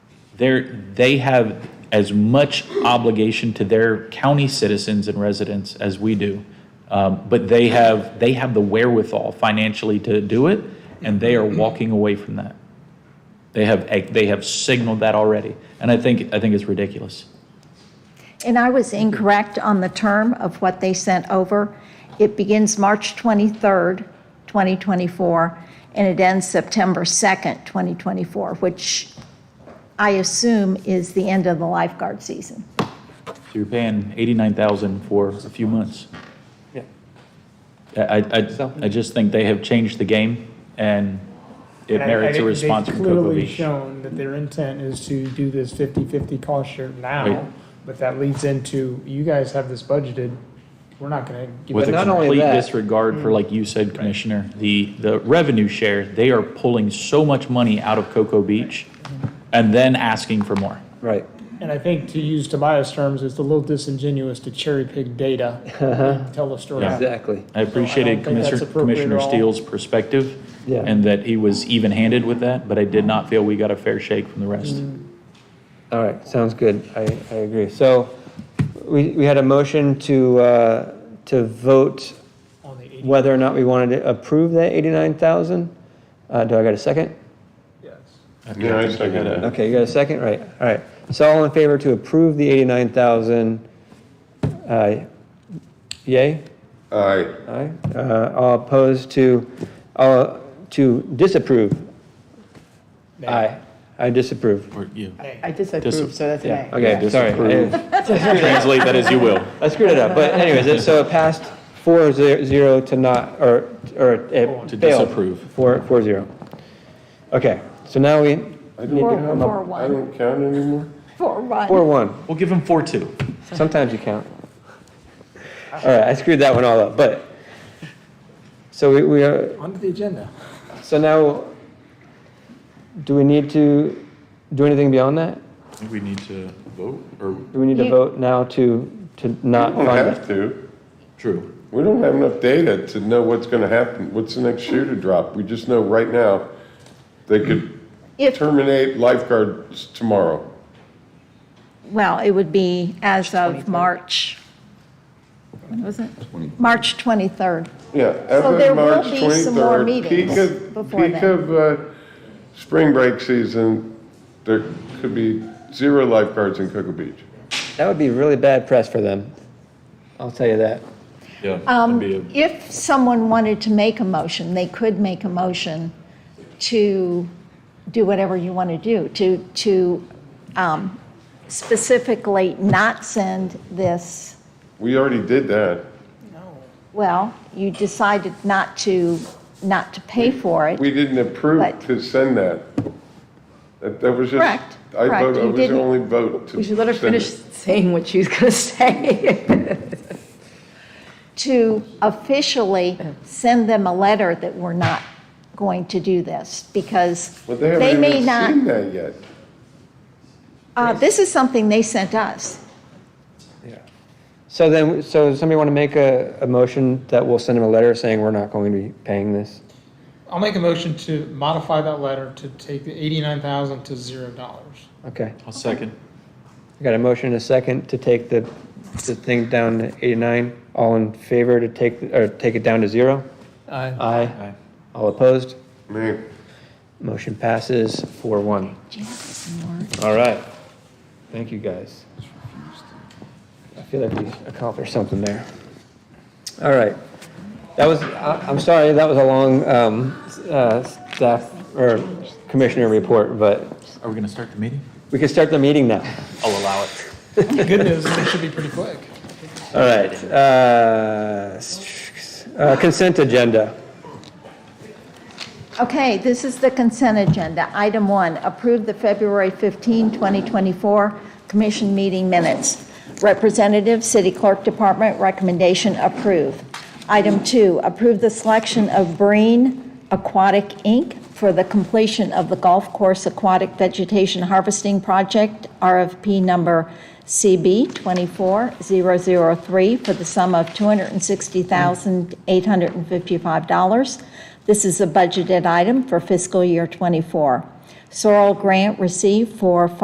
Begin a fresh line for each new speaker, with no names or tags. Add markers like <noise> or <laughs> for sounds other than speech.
they're, they have as much obligation to their county citizens and residents as we do. Um, but they have, they have the wherewithal financially to do it, and they are walking away from that. They have, they have signaled that already, and I think, I think it's ridiculous.
And I was incorrect on the term of what they sent over. It begins March 23rd, 2024, and it ends September 2nd, 2024, which I assume is the end of the lifeguard season.
So you're paying eighty-nine thousand for a few months.
Yeah.
I, I, I- I just think they have changed the game, and it
And I- I
merits a
think
response from
They've clearly
Kokavich.
shown that their intent is to do this 50/50 cost share
Right.
now, but that leads into, you guys have this budgeted, we're not gonna give
With
it.
a
not only
complete
that-
disregard for, like you said, Commissioner, the, the revenue share, they are pulling so much money out of Cocoa Beach and then asking for more.
Right.
And I think to use Tobias terms, it's a little disingenuous to cherry pick data, and tell the story.
Exactly.
I
think
appreciated
that's
Commissioner
appropriate at
Commissioner
all.
Steele's perspective
Yeah.
and that he was even-handed with that, but I did not feel we got a fair shake from the rest.
All right, sounds good. I, I agree. So we, we had a motion to, uh, to vote
On the 80.
whether or not we wanted to approve that 89,000. Uh, do I got a second?
Yeah, I second that.
Okay, you got a second? Right, all right. So all in favor to approve the 89,000, uh, yay?
Aye.
Aye. Uh, all opposed to, all, to disapprove? Aye. I disapprove.
Or you.
I disapprove, so that's an
Yeah,
aye.
okay, sorry.
disapprove. Translate that as you will.
I screwed it up, but anyways, it- so it passed four zero zero to not, or, or it failed.
To disapprove.
Four, four zero. Okay, so now we,
I
Four,
don't count,
four,
I
one,
don't count anymore?
four, one.
four one,
We'll give him four-two.
sometimes you count. All right, I screwed that one all up, but, so we, we are,
Onto the agenda.
so now, do we need to do anything beyond that?
We need to vote, or?
Do we need to
You-
vote now to, to not
We don't
fund it?
have to.
True.
We don't have enough data to know what's gonna happen, what's the next shoe to drop. We just know right now, they could
If,
terminate lifeguards tomorrow.
well, it would be as of March, when was it? March 23rd.
Yeah. as of
there will
March
be some more
23rd,
meetings
peak of-
before
Peak
then.
of, uh, spring break season, there could be zero lifeguards in Cocoa Beach.
That would be really bad press for them, I'll tell you that.
Yeah.
Um,
that'd be a-
If someone wanted to make a motion, they could make a motion to do whatever you want to do, to, to um, specifically not send this,
We already did that.
well, you decided not to, not to pay for it.
We didn't approve
But-
to send that. That, that was just.
Correct,
I
correct,
voted, I
you
was the
didn't-
only vote to.
We should let her
send it.
finish saying what she's going to <laughs> say.
to officially send them a letter that we're not going to do this, because
But they
they
haven't
may
even seen
not,
that yet.
uh, this is something they sent us.
So then, so does somebody want to make a, a motion that we'll send them a letter saying we're not going to be paying this?
I'll make a motion to modify that letter to take the 89,000 to $0.
<laughs>
dollars.
Okay,
I'll second.
I got a motion and a second to take the, the thing down to eighty-nine. All in favor to take, or take it down to zero? Aye. All opposed?
Me.
Motion passes four one. All right. Thank you, guys. I feel like we accomplished something there. All right. That was, I- I'm sorry, that was a long um, s- uh, staff or commissioner report, but
Are we gonna start the meeting?
we can start the meeting now.
I'll allow it.
Good news, it should be pretty quick.
All right. uh, s- uh, Consent agenda.
Okay, this is the consent agenda. Item one, approve the February 15, 2024 commission meeting minutes. Representative, City Clerk Department, recommendation approve. Item two, approve the selection of Breen Aquatic, Inc. for the completion of the Golf Course Aquatic Vegetation Harvesting Project, RFP number CB 24003 for the sum of $260,855. This is a budgeted item for fiscal year '24. Sorrel grant received for